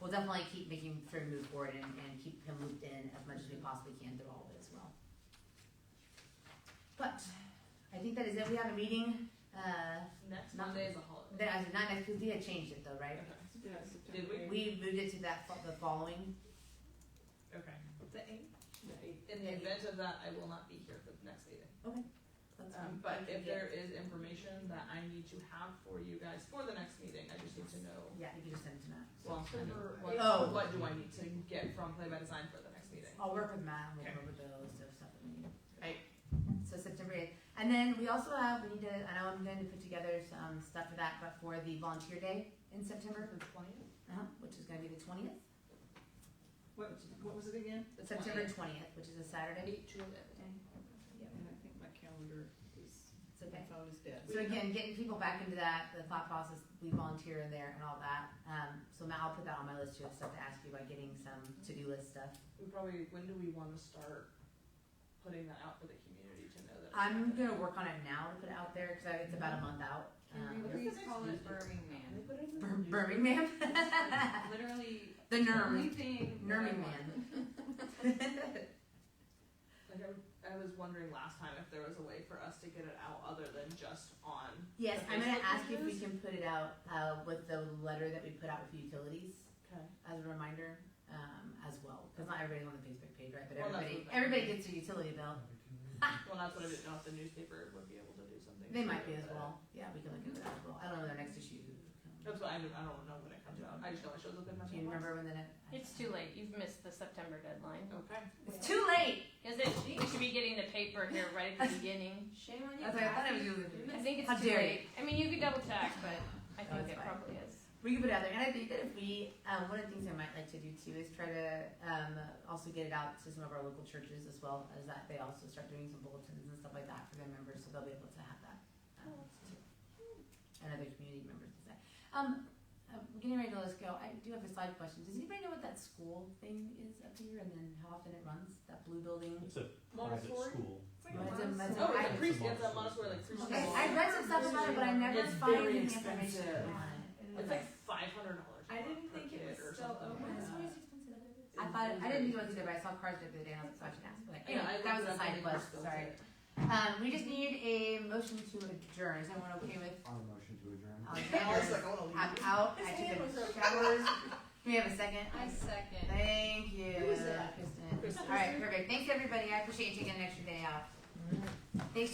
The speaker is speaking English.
we'll definitely keep making sure to move forward and, and keep him looped in as much as we possibly can through all of it as well. But, I think that is it, we have a meeting, uh, Next Not- Monday is a holiday. that, not next, because we had changed it though, right? Okay. Yes. Did we? We moved it to that, fo- the following, Okay. The eighth. The eighth. In the event of that, I will not be here for the next meeting. That's fine. Um, but if Yeah. there is information that I need to have for you guys for the next meeting, I just need to know. yeah, you can just send it to Matt. Well, what, Oh. what do I need to get from Play by Design for the next meeting? I'll work with Matt, and we'll Okay. go over the list of stuff that we need. Right. So September eighth, and then we also have, we need to, I know I'm going to put together some stuff for that, but for the volunteer day in September, twentieth? uh-huh, which is gonna be the twentieth, What, what was it again? The September 20th. twentieth, which is a Saturday. Eight to eleven. And I think my calendar is, It's my okay. phone is dead. So again, getting people back into that, the thought process, we volunteer in there and all that, um, so Matt, I'll put that on my list too, of stuff to ask you about getting some to-do list stuff. We probably, when do we wanna start putting that out for the community to know that? it's I'm happening? gonna work on it now to put it out there, cause I- it's about a month out. Can we Um, Uh, please call it Birmingham? Bir- Birmingham? Literally, The the only Nerm, thing. that I Nerming want. man. Like, I, I was wondering last time if there was a way for us to get it out other than just on. Yes, the I'm gonna Facebook ask you if we pages? can put it out, uh, with the letter that we put out with utilities Okay. as a reminder, um, as well, cause not everybody's on the Facebook page, right, but Well, that's everybody, what- everybody gets a utility bill. Well, that's what I didn't know if the newspaper would be able to do something. They to might be it, as but- well. Yeah, we can look into that as well. I don't know their next issue. That's what I, don't- I don't know when it comes out. I just know it shows up in my Do you mailbox. remember when the next? It's too late. You've missed the September deadline. Okay. It's too late. Because it, we should be getting the paper here right at the beginning. Shame on you, That's what I thought it Kathy. was you. I think How it's too dare late. I mean, you could double check, but I No, think it's it fine. probably is. We can put it out there, and I think that if we, um, one of the things I might like to do too is try to um, also get it out to some of our local churches as well as that they also start doing some bulletins and stuff like that for their members, so they'll be able to have that. Um, too. and other community members and that. Um, uh, we're getting ready to let's go. I do have a slide question. Does anybody know what that school thing is up here, and then how often it runs? That blue building. It's a private Montessori. school. like Well, it's a Montessori. mess- I- Oh, it's a pre- priest. It's a Montessori like Christian Okay, school. I read some stuff about it, but I never It's find very any information expensive. on it. It's like five hundred dollars. I didn't think it was still open. Yeah. expensive. I thought I didn't think it was either, but I saw cars the other day and I was like, so I should ask. But Yeah, anyway, I that was looked a it up side and quest. it was Sorry. still Um, we just need a motion to adjourn. Is everyone okay with? On a motion to adjourn. I'll there. I was adjourn. like, I wanna I'm leave. out. His I hand took was a up. showers. We have a second. I second. Thank you, Who was that? Kristen. Kristen. All right, perfect. Thanks everybody. I appreciate you taking an extra day out. Thanks.